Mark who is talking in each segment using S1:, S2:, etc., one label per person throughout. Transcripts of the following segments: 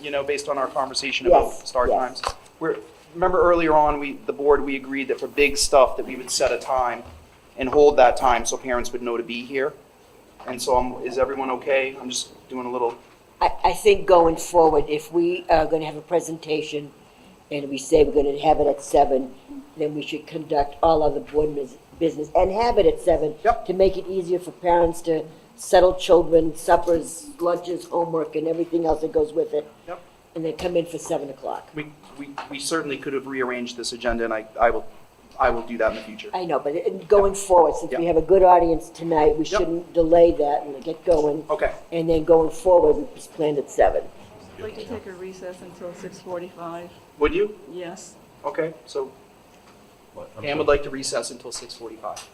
S1: you know, based on our conversation
S2: Yes,
S1: about start
S2: yes.
S1: times. We're, remember earlier on, we, the board, we agreed that for big stuff, that we would set a time and hold that time so parents would know to be here. And so I'm, is everyone okay? I'm just doing a little,
S2: I, I think going forward, if we are gonna have a presentation and we say we're gonna have it at seven, then we should conduct all other board mis- business and have it at seven.
S1: Yep.
S2: To make it easier for parents to settle children, suppers, lunches, homework, and everything else that goes with it.
S1: Yep.
S2: And then come in for seven o'clock.
S1: we, we, we certainly could have rearranged this agenda and I, I will, I will do that in the future.
S2: I know, but in- going forward, since we have a good audience tonight, we
S1: Yep. Oh.
S2: shouldn't delay that and get going.
S1: Okay.
S2: And then going forward, we just planned at seven.
S3: I'd like to take a recess until 6:45,
S1: Would you?
S3: yes.
S1: Okay, so
S4: What, I'm
S1: Pam would like to recess until six forty-five.
S4: sorry,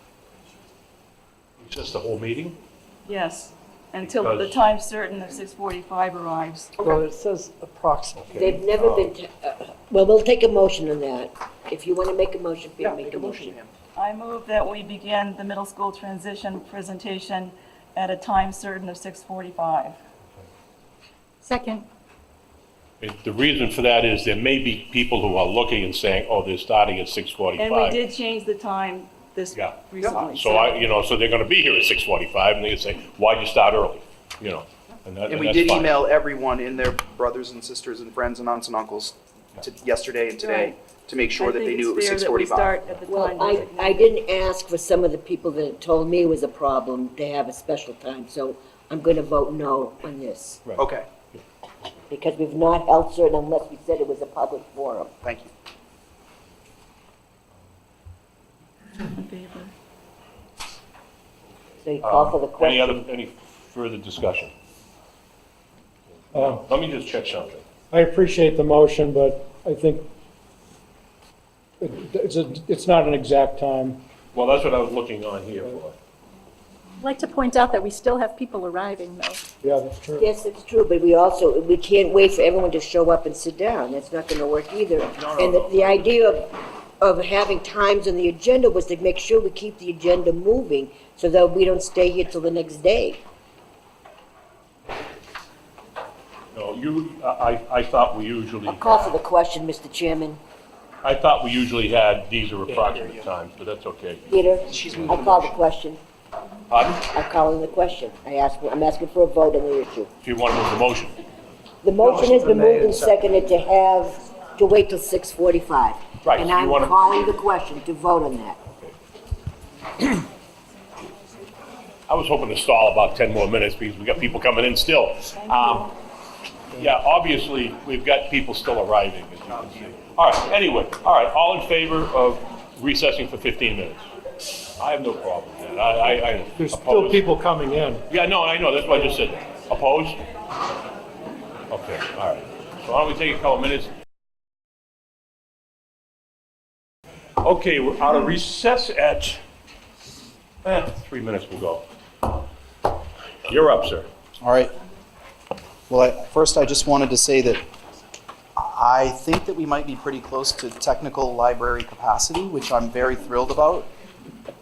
S4: Just the whole meeting?
S3: Yes, until the
S4: Because-
S3: time certain of 6:45 arrives.
S5: Well, it says approximately.
S2: They've
S4: Oh.
S2: never been, t- uh, well, we'll take a motion on that. If you want to make a motion,
S1: Yeah,
S2: Pam,
S1: make a motion, Pam.
S3: I move that we begin the middle school transition presentation at a time certain of 6:45.
S4: Uh,
S6: Second.
S4: It- The reason for that is there may be people who are looking and saying, oh, they're starting at six
S3: And we
S4: forty-five.
S3: did change the time this
S4: Yeah.
S3: recently.
S4: So I, you know, so they're gonna be here at six forty-five, and they say, why'd you start early? You know, and that,
S1: And
S4: and
S1: we
S4: that's
S1: did
S4: fine.
S1: email everyone and their brothers and sisters and friends and aunts and uncles to, yesterday and today to make sure that they knew it was six
S3: I
S1: forty-five.
S3: think it's fair that we start at the time
S2: Well, I,
S3: designated.
S2: I didn't ask for some of the people that had told me it was a problem to have a special time, so I'm going to vote no on this,
S4: Right.
S1: Okay,
S2: because we've not held certain unless we said it was a public forum.
S1: thank you.
S3: In favor.
S2: So you call for the
S4: Um, Any
S2: question.
S4: other, any further discussion? Let me just check something.
S5: I appreciate the motion, but I think it- it's, a- it's not an exact time.
S4: Well, that's what I was looking on here for.
S6: I'd like to point out that we still have people arriving, though.
S5: Yeah, that's true.
S2: Yes, it's true, but we also, we can't wait for everyone to show up and sit down. That's not going to work either.
S4: no,
S2: And the-
S4: no.
S2: the idea of, of having times on the agenda was to make sure we keep the agenda moving so that we don't stay here till the next day.
S4: No, you, I, I- I thought we usually.
S2: I'll call for the question, Mr. Chairman.
S4: I thought we usually had, these are approximate times, but that's okay.
S2: Peter,
S1: She's moving
S2: I'll
S1: the
S2: call the
S1: motion.
S2: question.
S4: Pardon?
S2: I'm calling the question. I ask, I'm asking for a vote on the issue.
S4: If you want to move the motion.
S2: The motion has
S1: been
S2: been
S1: made
S2: moved and
S1: and seconded.
S2: seconded to have, to wait till 6:45.
S4: Right,
S2: And
S4: you
S2: I'm
S4: wanna-
S2: calling the question to vote on that.
S4: I was hoping to stall about 10 more minutes because we got people coming in still. Um, Yeah, obviously, we've got people still arriving, as you can see. All right, anyway, all right, all in favor of recessing for 15 minutes? I have no problem with that. I, I- I
S5: There's still
S4: oppose.
S5: people coming in.
S4: Yeah, no, I know, that's why I just said that. Opposed? Okay, all right. So why don't we take a couple minutes? Okay, we're out of recess at, eh, three minutes will go. You're up, sir.
S1: All right. Well, I- first, I just wanted to say that I think that we might be pretty close to technical library capacity, which I'm very thrilled about.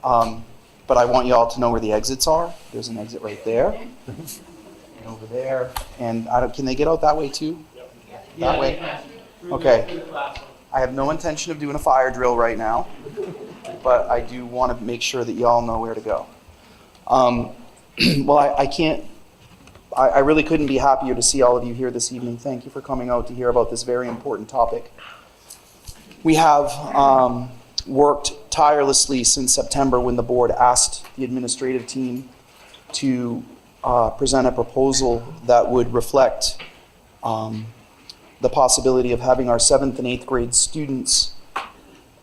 S1: Um, But I want you all to know where the exits are. There's an exit right there. And over there. And I don't, can they get out that way too? That way? Okay. I have no intention of doing a fire drill right now, but I do want to make sure that y'all know where to go. Um, Well, I- I can't I, I really couldn't be happier to see all of you here this evening. Thank you for coming out to hear about this very important topic. We have um, worked tirelessly since September when the board asked the administrative team to uh, present a proposal that would reflect um, the possibility of having our seventh and eighth grade students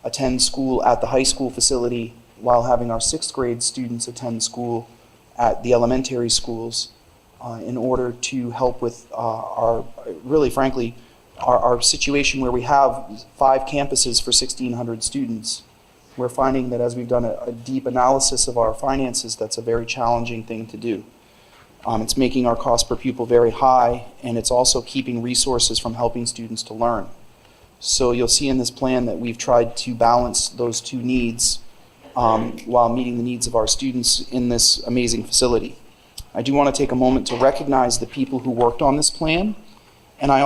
S1: attend school at the high school facility while having our sixth grade students attend school at the elementary schools uh, in order to help with uh, our, really frankly, our, our situation where we have five campuses for 1,600 students. We're finding that as we've done a, a deep analysis of our finances, that's a very challenging thing to do. Um, it's making our cost per pupil very high, and it's also keeping resources from helping students to learn. So you'll see in this plan that we've tried to balance those two needs um, while meeting the needs of our students in this amazing facility. I do want to take a moment to recognize the people who worked on this plan, and I